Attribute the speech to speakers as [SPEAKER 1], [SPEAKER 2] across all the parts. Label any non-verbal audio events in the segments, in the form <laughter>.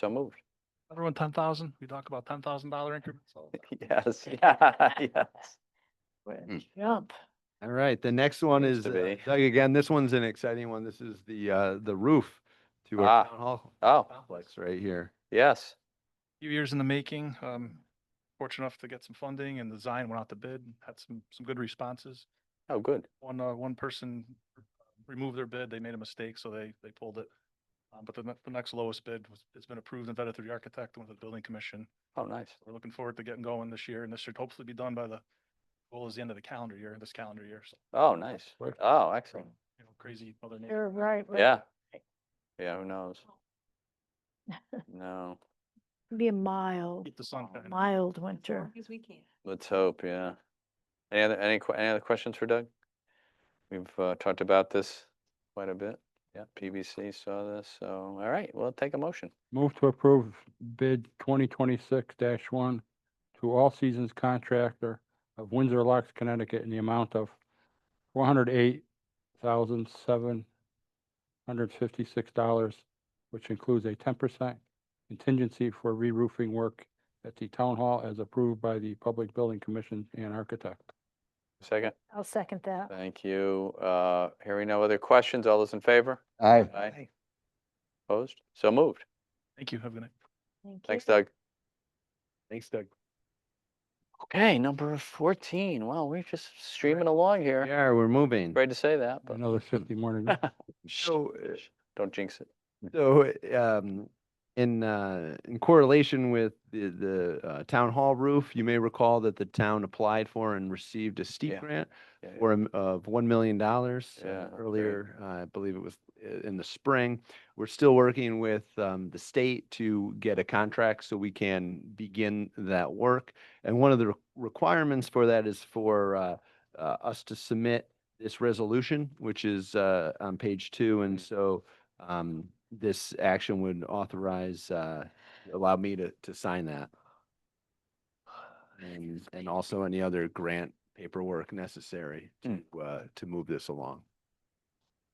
[SPEAKER 1] So moved.
[SPEAKER 2] Everyone ten thousand, we talk about ten thousand dollar increments. all the time.
[SPEAKER 1] <laughs> Yes, yeah, yes. Hmm.
[SPEAKER 3] Jump.
[SPEAKER 4] All right, the next one
[SPEAKER 1] Used
[SPEAKER 4] is,
[SPEAKER 1] to
[SPEAKER 4] uh,
[SPEAKER 1] be.
[SPEAKER 4] Doug, again, this one's an exciting one. This is the, uh, the roof
[SPEAKER 1] Ah.
[SPEAKER 4] to our town hall
[SPEAKER 1] Oh,
[SPEAKER 4] complex right here.
[SPEAKER 1] yes.
[SPEAKER 2] Few years in the making, um, fortunate enough to get some funding and the design went out to bid, and had some, some good responses.
[SPEAKER 1] Oh, good.
[SPEAKER 2] One, uh, one person removed their bid, they made a mistake, so they, they pulled it. Um, but the, ne- the next lowest bid was, has been approved and vetted through the architect and with the building commission.
[SPEAKER 1] Oh, nice.
[SPEAKER 2] We're looking forward to getting going this year and this should hopefully be done by the, goal is the end of the calendar year, this calendar year. So,
[SPEAKER 1] Oh, nice.
[SPEAKER 4] Right.
[SPEAKER 1] Oh, excellent.
[SPEAKER 2] you know, crazy mother nature.
[SPEAKER 3] You're right. right.
[SPEAKER 1] Yeah. Yeah, who knows? No,
[SPEAKER 3] Be a mild,
[SPEAKER 2] Keep the sun shining.
[SPEAKER 3] mild winter.
[SPEAKER 5] As we can.
[SPEAKER 1] let's hope, yeah. Any other, any, que- any other questions for Doug? We've uh, talked about this quite a bit. Yeah, PVC saw this, so, all right, well, take a motion.
[SPEAKER 6] Move to approve bid twenty twenty-six one to All Seasons Contractor of Windsor Locks, Connecticut in the amount of four hundred eight thousand seven hundred fifty-six dollars, which includes a ten percent contingency for re-roofing work at the town hall as approved by the Public Building Commission and architect.
[SPEAKER 1] Second,
[SPEAKER 3] I'll second that.
[SPEAKER 1] thank you. Uh, hearing no other questions, all those in favor?
[SPEAKER 6] Aye.
[SPEAKER 1] Aye. Opposed? So moved.
[SPEAKER 2] Thank you, have a good night.
[SPEAKER 3] Thank
[SPEAKER 1] Thanks,
[SPEAKER 3] you.
[SPEAKER 1] Doug.
[SPEAKER 4] Thanks, Doug.
[SPEAKER 1] Okay, number fourteen. Wow, we're just streaming along here.
[SPEAKER 4] Yeah, we're moving.
[SPEAKER 1] Afraid to say that, but
[SPEAKER 6] Another fifty more to go.
[SPEAKER 4] So, uh,
[SPEAKER 1] don't jinx it.
[SPEAKER 4] So, um, in, uh, in correlation with the, the, uh, town hall roof, you may recall that the town applied for and received a
[SPEAKER 1] Yeah.
[SPEAKER 4] steep grant
[SPEAKER 1] Yeah, yeah.
[SPEAKER 4] for, a m- of one million dollars
[SPEAKER 1] Yeah, that's right.
[SPEAKER 4] earlier, uh, I believe it was i- in the spring. We're still working with, um, the state to get a contract so we can begin that work. And one of the re- requirements for that is for, uh, uh, us to submit this resolution, which is, uh, on page two. And so, um, this action would authorize, uh, allow me to, to sign that. And, and also any other grant paperwork necessary to, uh, to move this along.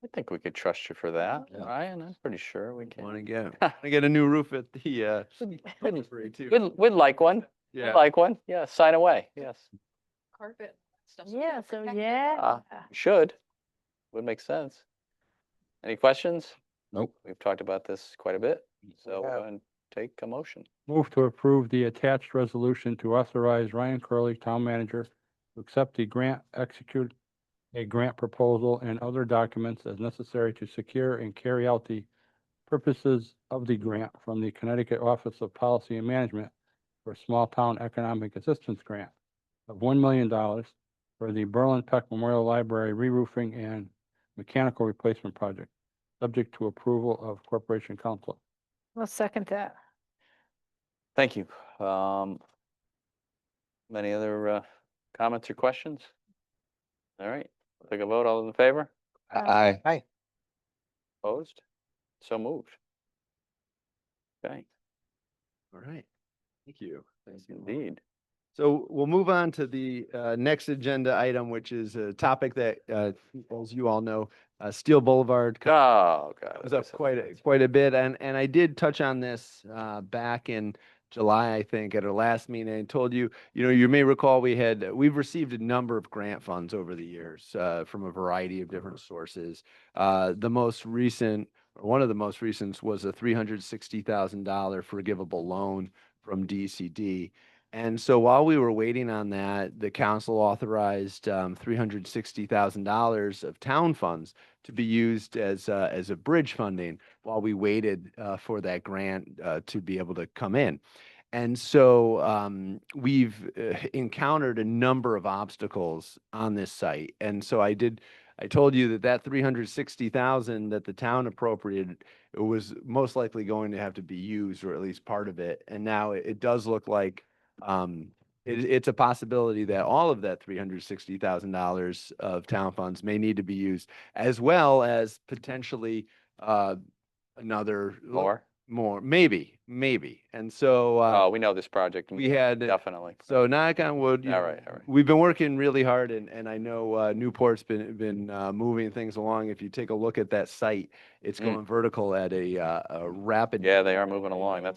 [SPEAKER 1] I think we could trust you for that,
[SPEAKER 4] Yeah.
[SPEAKER 1] Ryan. I'm pretty sure we
[SPEAKER 4] Want
[SPEAKER 1] can.
[SPEAKER 4] to get, want to get a new roof at the, uh, library
[SPEAKER 1] We'd,
[SPEAKER 4] too.
[SPEAKER 1] we'd like one. We'd
[SPEAKER 4] Yeah.
[SPEAKER 1] like one. Yeah, sign away. Yes,
[SPEAKER 5] Carpet. stuff, so we
[SPEAKER 3] Yeah,
[SPEAKER 5] gotta
[SPEAKER 3] so
[SPEAKER 5] protect it.
[SPEAKER 3] yeah.
[SPEAKER 1] we should. Would make sense. Any questions?
[SPEAKER 6] Nope.
[SPEAKER 1] We've talked about this quite a bit, so
[SPEAKER 4] have.
[SPEAKER 1] go and take a motion.
[SPEAKER 6] Move to approve the attached resolution to authorize Ryan Curley, Town Manager, to accept the grant, execute a grant proposal and other documents as necessary to secure and carry out the purposes of the grant from the Connecticut Office of Policy and Management for Small Town Economic Assistance Grant of one million dollars for the Berlin Peck Memorial Library re-roofing and mechanical replacement project, subject to approval of Corporation Council.
[SPEAKER 3] I'll second that.
[SPEAKER 1] Thank you. Um, any other, uh, comments or questions? All right, we'll take a vote. All those in favor?
[SPEAKER 3] Aye.
[SPEAKER 1] Aye. Opposed? So moved. Okay,
[SPEAKER 4] All right. Thank you. Thanks
[SPEAKER 1] indeed. <laughs>
[SPEAKER 4] So we'll move on to the uh, next agenda item, which is a topic that, uh, as you all know, uh, Steel Boulevard co-
[SPEAKER 1] Oh, God.
[SPEAKER 4] comes up quite a, quite a bit. And, and I did touch on this uh, back in July, I think, at our last meeting. I told you, you know, you may recall we had, we've received a number of grant funds over the years uh, from a variety of different sources. Uh, The most recent, or one of the most recent was a $360,000 forgivable loan from DCD. And so while we were waiting on that, the council authorized um, $360,000 of town funds to be used as, uh, as a bridge funding while we waited, uh, for that grant, uh, to be able to come in. And so, um, we've uh, <laughs> encountered a number of obstacles on this site. And so I did, I told you that that three hundred sixty thousand that the town appropriated was most likely going to have to be used, or at least part of it. And now it, it does look like, um, it, it's a possibility that all of that three hundred sixty thousand dollars of town funds may need to be used as well as potentially uh, another l-
[SPEAKER 1] More?
[SPEAKER 4] more, maybe, maybe. And so uh,
[SPEAKER 1] Oh, we know this project.
[SPEAKER 4] we had,
[SPEAKER 1] Definitely.
[SPEAKER 4] so knock on wood. you
[SPEAKER 1] All
[SPEAKER 4] know,
[SPEAKER 1] right, all right.
[SPEAKER 4] We've been working really hard and, and I know uh, Newport's been, been uh, moving things along. If you take a look at that site, it's
[SPEAKER 1] Mm.
[SPEAKER 4] going vertical at a, uh, a rapid
[SPEAKER 1] Yeah, they are moving along. That's